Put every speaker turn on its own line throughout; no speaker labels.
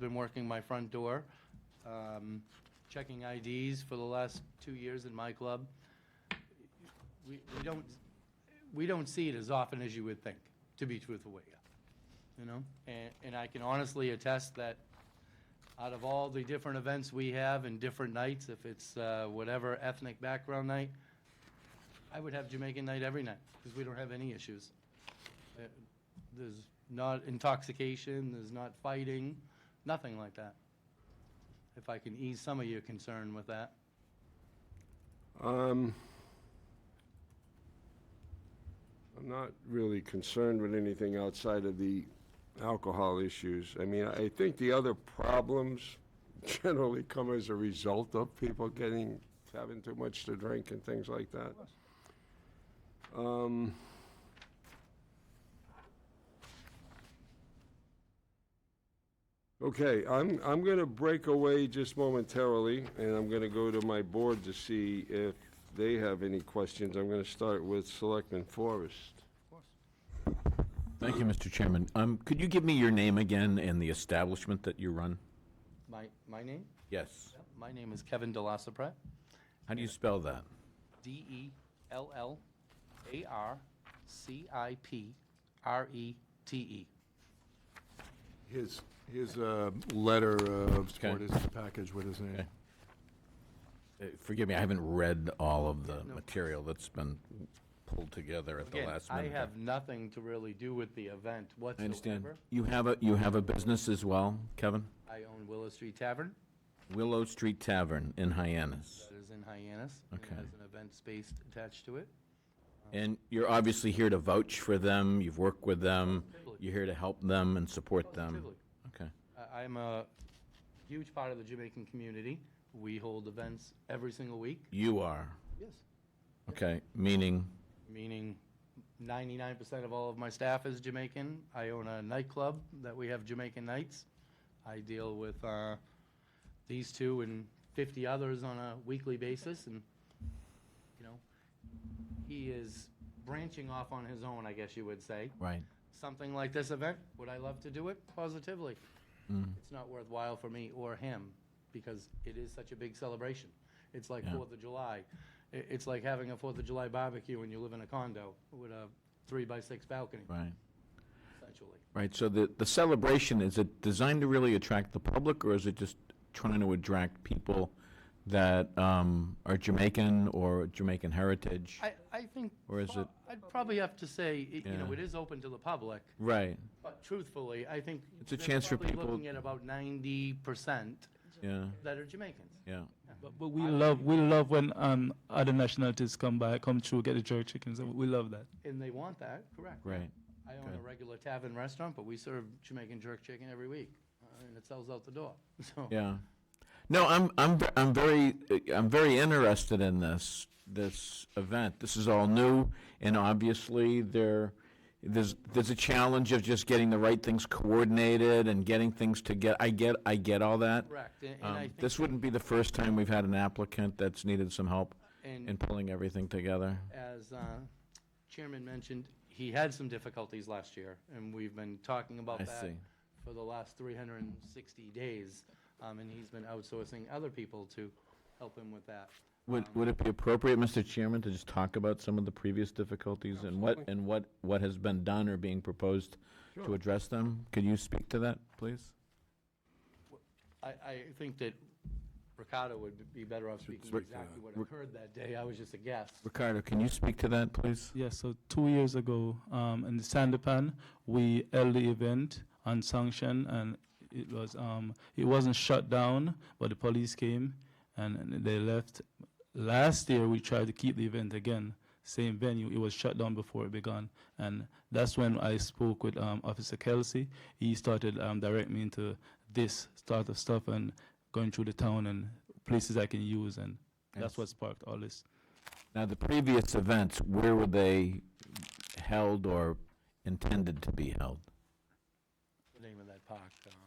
been working my front door, um, checking IDs for the last two years in my club. We we don't, we don't see it as often as you would think, to be truthful with you, you know? And and I can honestly attest that out of all the different events we have and different nights, if it's uh, whatever ethnic background night, I would have Jamaican night every night, because we don't have any issues. Uh, There's not intoxication, there's not fighting, nothing like that. If I can ease some of your concern with that.
Um, I'm not really concerned with anything outside of the alcohol issues. I mean, I think the other problems generally come as a result of people getting, having too much to drink and things like that. Um, Okay, I'm, I'm gonna break away just momentarily, and I'm gonna go to my board to see if they have any questions. I'm gonna start with Selectman Forrest.
Thank you, Mr. Chairman. Um, Could you give me your name again and the establishment that you run?
My, my name?
Yes.
My name is Kevin DeLassapra,
How do you spell that?
E E D-E-L-L-A-R-C-I-P-R-E-T-E.
His, his uh, letter of support
Okay.
is in the package with his name.
Okay. Uh, Forgive me, I haven't read all of the material that's been pulled together at the
Again,
last
I
minute.
have nothing to really do with the event
I understand.
whatsoever.
You have a, you have a business as well, Kevin?
I own Willow Street Tavern,
Willow Street Tavern in Hyannis.
that is in Hyannis. and
Okay.
It has an event space attached to it.
And you're obviously here to vouch for them, you've worked with them, you're here to help them and support them.
Positively.
Okay.
I- I'm a huge part of the Jamaican community. We hold events every single week.
You are,
Yes.
okay, meaning,
Meaning 99% of all of my staff is Jamaican. I own a nightclub that we have Jamaican nights. I deal with uh, these two and 50 others on a weekly basis, and, you know, he is branching off on his own, I guess you would say.
right.
something like this event, would I love to do it? Positively.
Mm.
It's not worthwhile for me or him because it is such a big celebration. It's like
Yeah.
Fourth of July. I- It's like having a Fourth of July barbecue and you live in a condo with a three by six balcony,
Right.
essentially.
Right, so the, the celebration, is it designed to really attract the public, or is it just trying to attract people that um, are Jamaican or Jamaican heritage?
I, I think.
Or is
prob-
it-
I'd probably have to say, it- you know,
Yeah.
it is open to the public,
Right,
but truthfully, I think.
It's a
they're
chance for
probably
people-
Looking at about ninety percent
yeah,
that are Jamaicans.
yeah.
But, but we love we love when um, other nationalities come by, come through, get the jerk chickens. and We love that.
And they want that, correct.
Right.
I own a
Good.
regular tavern restaurant, but we serve Jamaican jerk chicken every week, uh, and it sells out the door, so.
Yeah. No, I'm, I'm, ve- I'm very, I'm very interested in this, this event. This is all new, and obviously, there, there's, there's a challenge of just getting the right things coordinated and getting things to get, I get, I get all that.
Correct, and and
Um,
I think.
This wouldn't be the first time we've had an applicant that's needed some help in
And
pulling everything together.
as uh, Chairman mentioned, he had some difficulties last year, and we've been talking about
I
that
see.
for the last 360 days, um, and he's been outsourcing other people to help him with that.
Would, would it be appropriate, Mr. Chairman, to just talk about some of the previous difficulties and what, and what, what has been done or being proposed to address them? Could you speak to that, please?
I, I think that Ricardo would be better off speaking
uh,
exactly what occurred that day, I was just a guest.
Ricardo, can you speak to that, please?
Yeah. So two years ago, um, in the Sandepan, we held the event on sanction, and it was um, it wasn't shut down, but the police came and they left. Last year, we tried to keep the event again, same venue. It was shut down before it began, and that's when I spoke with um, Officer Kelsey. He started um, directing me into this start of stuff and going through the town and places I can use, and that's what sparked all this.
Now, the previous events, where were they held or intended to be held?
The name of that park,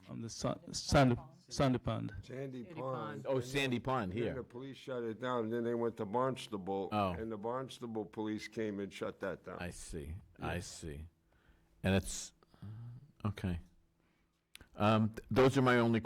um,
Um, the sand, sand, sand pond.
Sandy Pond.
Oh, Sandy Pond
And then the
here.
police shut it down, and then they went to Barnstable.
Oh.
And the Barnstable police came and shut that down.
I see, I see. And it's, okay. Um, th- Those are my only